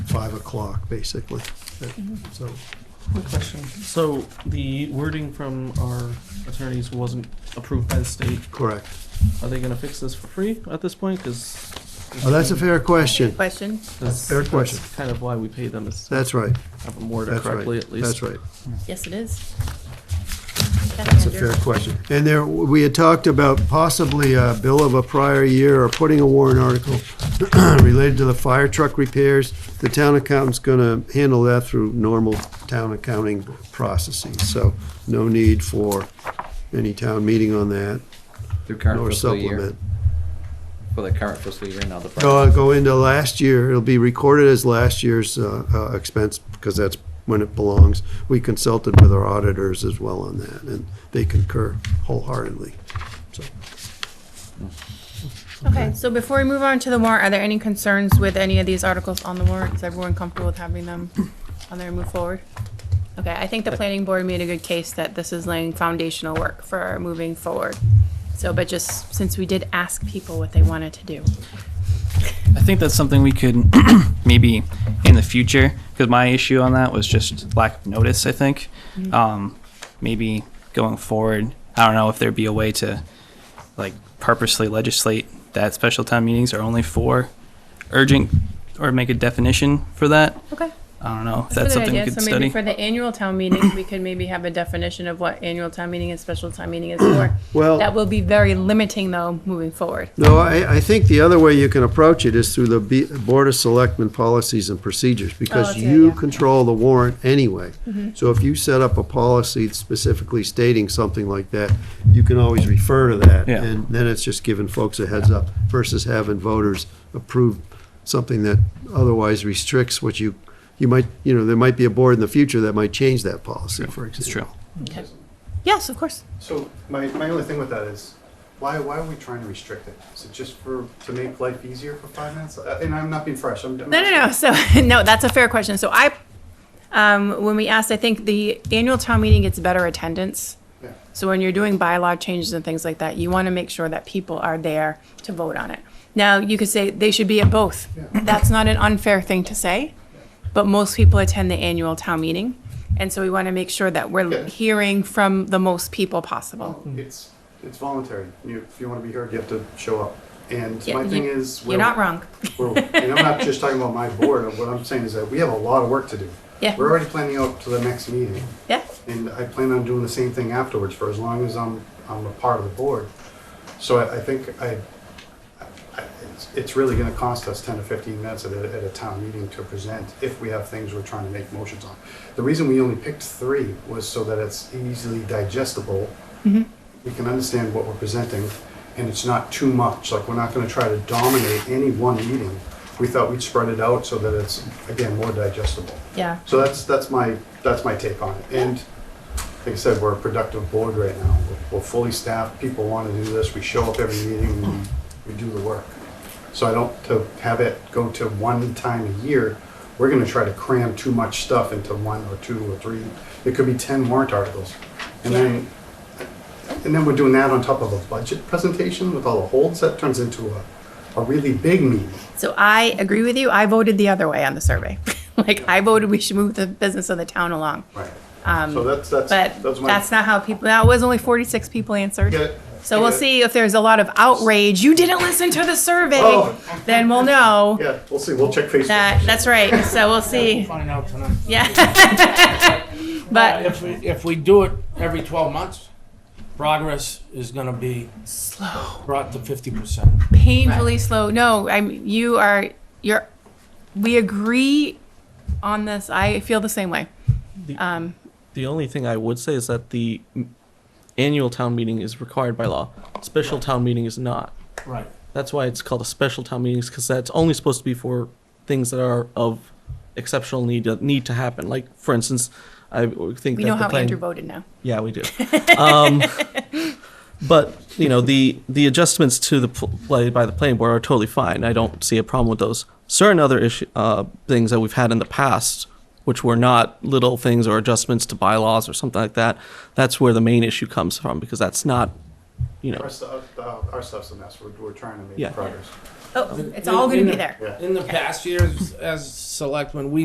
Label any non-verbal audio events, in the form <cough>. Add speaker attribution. Speaker 1: 5 o'clock, basically. That- So,
Speaker 2: Quick question. So the wording from our attorneys wasn't approved by the state.
Speaker 1: correct.
Speaker 2: Are they gonna fix this for free at this point? Because.
Speaker 1: Now, Oh, that's a fair question.
Speaker 3: Question?
Speaker 1: fair question.
Speaker 2: Kind of why we pay them is to
Speaker 1: That's right,
Speaker 2: have them worded
Speaker 1: that's right.
Speaker 2: correctly at least.
Speaker 1: That's right.
Speaker 3: Yes, it is.
Speaker 1: That's a fair question. And there, we had talked about possibly a bill of a prior year or putting a warrant article <clears throat> related to the fire truck repairs. The town accountant's gonna handle that through normal town accounting processes, so no need for any town meeting on that,
Speaker 4: Through current
Speaker 1: nor
Speaker 4: fiscal year,
Speaker 1: supplement.
Speaker 4: for the current fiscal year and other
Speaker 1: No,
Speaker 4: projects.
Speaker 1: I'll Uh, go into last year, it'll be recorded as last year's uh, uh, expense, because that's when it belongs. We consulted with our auditors as well on that, and they concur wholeheartedly, so.
Speaker 3: Okay, so before we move on to the warrant, are there any concerns with any of these articles on the warrant? Is everyone comfortable with having them on there and move forward? Okay, I think the planning board made a good case that this is laying foundational work for moving forward. So, but just since we did ask people what they wanted to do.
Speaker 5: I think that's something we could <clears throat> maybe in the future, because my issue on that was just lack of notice, I think.
Speaker 3: Mm-hmm.
Speaker 5: Um, maybe going forward, I don't know if there'd be a way to like purposely legislate that special town meetings are only for urgent or make a definition for that.
Speaker 3: Okay.
Speaker 5: I don't know if that's
Speaker 3: a good
Speaker 5: something we
Speaker 3: idea.
Speaker 5: could
Speaker 3: So maybe
Speaker 5: study.
Speaker 3: for the annual town meeting, we could maybe have a definition of what annual town meeting and special town meeting is for.
Speaker 1: Well-
Speaker 3: That will be very limiting though, moving forward.
Speaker 1: No, I, I think the other way you can approach it is through the B- Board of Selectmen policies and procedures, because
Speaker 3: that's a good
Speaker 1: you
Speaker 3: idea.
Speaker 1: control the warrant anyway. So if you set up a policy specifically stating something like that, you can always refer to that.
Speaker 5: Yeah.
Speaker 1: And then it's just giving folks a heads up versus having voters approve something that otherwise restricts what you, you might, you know, there might be a board in the future that might change that policy, for example.
Speaker 5: It's true.
Speaker 3: Yes, of course.
Speaker 6: So my, my only thing with that is, why, why are we trying to restrict it? Is it just for, to make life easier for five minutes? Uh, And I'm not being fresh, I'm.
Speaker 3: No, no, <laughs> no. So, no, that's a fair question. So I, um, when we asked, I think the annual town meeting gets better attendance.
Speaker 6: no.
Speaker 3: So when you're doing bylaw changes and things like that, you want to make sure that people are there to vote on it. Now, you could say they should be at both.
Speaker 6: Yeah.
Speaker 3: That's not an unfair thing to say, but most people attend the annual town meeting. And so we want to make sure that
Speaker 6: Yeah.
Speaker 3: we're hearing from the most people possible.
Speaker 6: Mm-hmm. It's, it's voluntary. You, if you wanna be heard, you have to show up. And
Speaker 3: Yeah,
Speaker 6: my
Speaker 3: you-
Speaker 6: thing is.
Speaker 3: You're
Speaker 6: we're-
Speaker 3: not wrong.
Speaker 6: we're- And I'm not just talking about my board, what I'm saying is that we have a lot of work to do.
Speaker 3: Yeah.
Speaker 6: We're already planning out to the next meeting.
Speaker 3: Yeah,
Speaker 6: and I plan on doing the same thing afterwards for as long as I'm, I'm a part of the board. So I, I think I, I, it's, it's really gonna cost us ten to fifteen minutes at a, at a town meeting to present if we have things we're trying to make motions on. The reason we only picked three was so that it's easily digestible. We can understand what we're presenting and it's not too much, like, we're not gonna try to dominate any one meeting. We thought we'd spread it out so that it's, again, more digestible.
Speaker 3: yeah.
Speaker 6: So that's, that's my, that's my take on it. And like I said, we're a productive board right now. We're- We're fully staffed, people want to do this, we show up every meeting, we, we do the work. So I don't, to have it go to one time a year, we're gonna try to cram too much stuff into one or two or three. It could be ten warrant articles. And then, and then we're doing that on top of a budget presentation with all the holds, that turns into a, a really big meeting.
Speaker 3: So I agree with you. I voted the other way on the survey. <laughs> Like, I voted we should move the business of the town along.
Speaker 6: Right.
Speaker 3: Um,
Speaker 6: So that's, that's,
Speaker 3: But
Speaker 6: that's my.
Speaker 3: that's not how people, that was only 46 people answered.
Speaker 6: Get it?
Speaker 3: So we'll
Speaker 6: Get it?
Speaker 3: see if there's a lot of outrage, you didn't listen to the survey,
Speaker 6: Oh.
Speaker 3: then we'll know.
Speaker 6: <laughs> Yeah, we'll see. We'll check Facebook.
Speaker 3: That, that's right, so we'll see.
Speaker 7: Find out tonight.
Speaker 3: Yeah. <laughs>
Speaker 7: Uh,
Speaker 3: But
Speaker 7: If, we- if we do it every twelve months, progress is gonna be
Speaker 3: slow,
Speaker 7: brought to fifty percent.
Speaker 3: painfully slow. No, I'm, you are, you're, we agree on this. I feel the same way.
Speaker 2: The-
Speaker 3: Um,
Speaker 2: The only thing I would say is that the m- annual town meeting is required by law. Special town meeting is not.
Speaker 7: Right.
Speaker 2: That's why it's called a special town meeting, because that's only supposed to be for things that are of exceptional need that need to happen. Like, for instance, I would think
Speaker 3: we
Speaker 2: that
Speaker 3: know
Speaker 2: the
Speaker 3: how
Speaker 2: plan-
Speaker 3: Andrew voted now.
Speaker 2: Yeah, we do. um, <laughs> but you know, the the adjustments to the pl- play by the playing board are totally fine. I don't see a problem with those. Certain other issue uh, things that we've had in the past, which were not little things or adjustments to bylaws or something like that, that's where the main issue comes from because that's not you
Speaker 6: Our
Speaker 2: know,
Speaker 6: stuff, our stuff's a mess, we're, we're trying to
Speaker 2: Yeah.
Speaker 6: make progress.
Speaker 3: Oh, it's all gonna be there.
Speaker 6: Yeah.
Speaker 7: In the past years, as selectmen, we